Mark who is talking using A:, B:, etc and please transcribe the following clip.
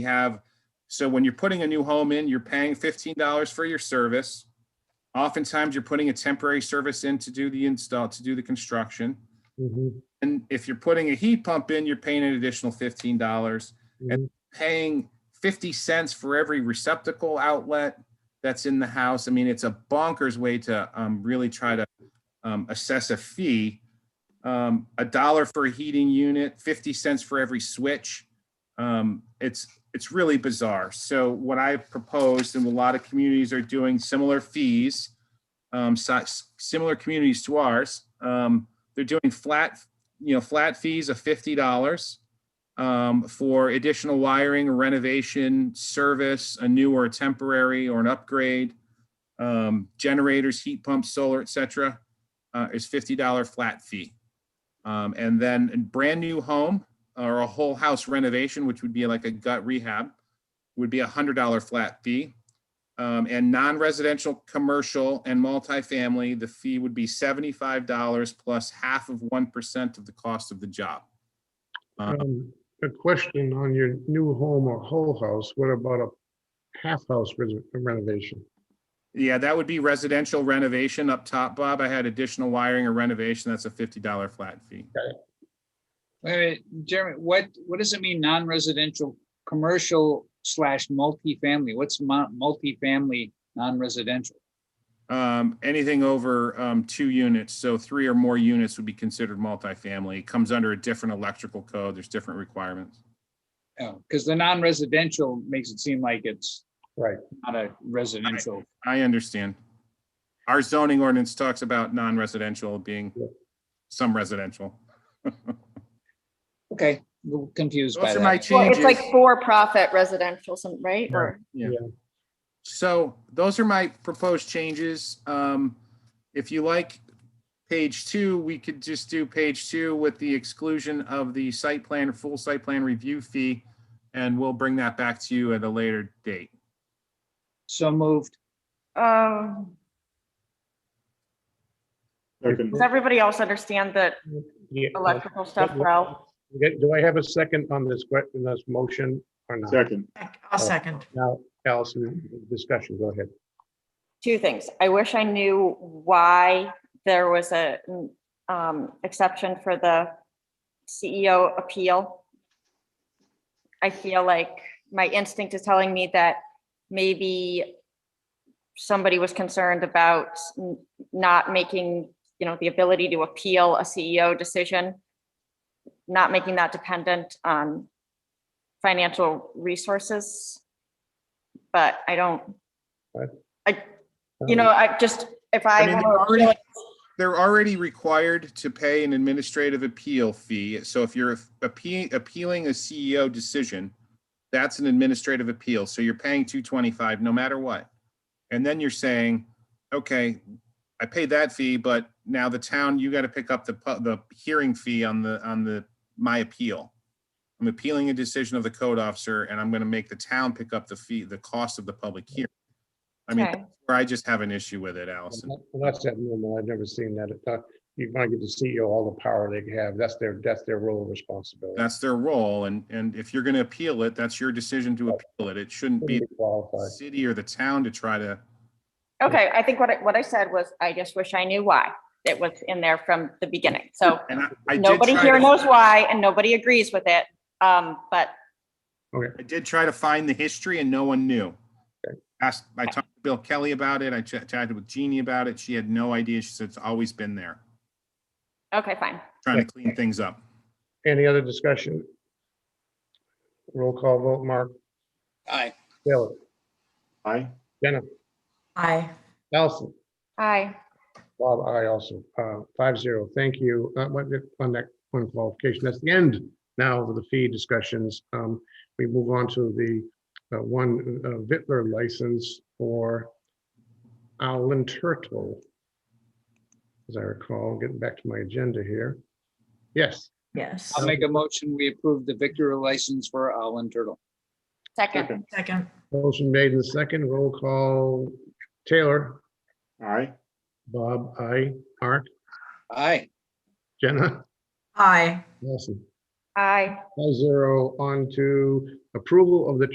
A: We have, so when you're putting a new home in, you're paying fifteen dollars for your service. Oftentimes, you're putting a temporary service in to do the install, to do the construction.
B: Mhm,
A: And if you're putting a heat pump in, you're paying an additional fifteen dollars,
B: mhm.
A: paying fifty cents for every receptacle outlet that's in the house. I mean, it's a bonkers way to um, really try to um, assess a fee. Um, a dollar for a heating unit, fifty cents for every switch. Um, it's it's really bizarre. So what I've proposed, and a lot of communities are doing similar fees, um, si- similar communities to ours. Um, they're doing flat, you know, flat fees of fifty dollars um, for additional wiring, renovation, service, a new or a temporary or an upgrade, um, generators, heat pumps, solar, et cetera, uh, is fifty dollar flat fee. Um, and then a brand new home or a whole house renovation, which would be like a gut rehab, would be a hundred dollar flat fee. Um, and non-residential, commercial and multifamily, the fee would be seventy-five dollars plus half of one percent of the cost of the job. Uh,
B: Um, A question on your new home or whole house, what about a half house res- renovation?
A: Yeah, that would be residential renovation up top, Bob. I had additional wiring or renovation. That's a fifty dollar flat fee.
C: Wait a minute, Jeremy, what, what does it mean, non-residential, commercial slash multifamily? What's mu- multifamily, non-residential?
A: Um, anything over, um, two units, so three or more units would be considered multifamily. It Comes under a different electrical code. There's different requirements.
C: Oh, because the non-residential makes it seem like it's
B: Right.
C: not a residential.
A: I understand. Our zoning ordinance talks about non-residential being
B: Yeah.
A: some residential.
C: Okay, a little confused by
A: Those are my
C: that.
D: Well,
A: changes.
D: it's like for-profit residential, some, right? Or,
A: So those are my proposed changes. Um, if you like page two, we could just do page two with the exclusion of the site plan, full site plan review fee. And we'll bring that back to you at a later date.
C: So moved.
D: um, does everybody else understand the
B: Yeah, uh,
D: electrical stuff well?
B: okay, Do I have a second on this, que- on this motion or not?
E: Second.
F: I'll second.
B: Now, Allison, discussion, go ahead.
D: Two things. I wish I knew why there was a, um, exception for the CEO appeal. I feel like my instinct is telling me that maybe somebody was concerned about n- not making, you know, the ability to appeal a CEO decision, not making that dependent on financial resources. But I don't,
B: Right.
D: I, you know, I just, if I.
A: I mean,
D: wanna
A: they're
D: appeal
A: already, they're already required to pay an administrative appeal fee. So if you're appe- appealing a CEO decision, that's an administrative appeal. So you're paying two twenty-five no matter what. And then you're saying, okay, I paid that fee, but now the town, you got to pick up the, pu- the hearing fee on the, on the, my appeal. I'm appealing a decision of the code officer and I'm going to make the town pick up the fee, the cost of the public hearing. I mean,
D: Okay.
A: where I just have an issue with it, Allison.
B: Well, Um, That's that normal. I've never seen that. Uh, You're going to give the CEO all the power they have. That's their, that's their role of responsibility.
A: that's their role and, and if you're going to appeal it, that's your decision to appeal it. It shouldn't be
B: Shouldn't be
A: the
B: Qualified.
A: city or the town to try to,
D: Okay, I think what I, what I said was, I just wish I knew why it was in there from the beginning. So
A: and I, I did
D: nobody
A: try
D: here
A: to,
D: knows why and nobody agrees with it. Um, but
A: I did try to find the history and no one knew. Asked, I talked to Bill Kelly about it. I ch- chatted with Jeannie about it. She had no idea. She said it's always been there,
D: okay, fine.
A: trying to clean things up.
B: Any other discussion? Roll call vote, Mark,
C: Aye.
B: Taylor,
E: Aye.
B: Jennifer,
F: Aye.
B: Allison,
D: Aye.
B: Bob, I also, uh, five zero, thank you. Uh, what, on that one qualification, that's the end now of the fee discussions. Um, we move on to the, uh, one, uh, Vittler license for Alan Turtle. As I recall, getting back to my agenda here. Yes,
F: Yes.
C: I'll make a motion, we approve the Victor license for Allen Turtle.
D: Second,
F: Second.
B: motion made in the second, roll call, Taylor,
E: Aye.
B: Bob, I, Art,
C: Aye.
B: Jenna,
F: Aye.
B: Nelson.
D: aye.
B: Five zero on to approval of the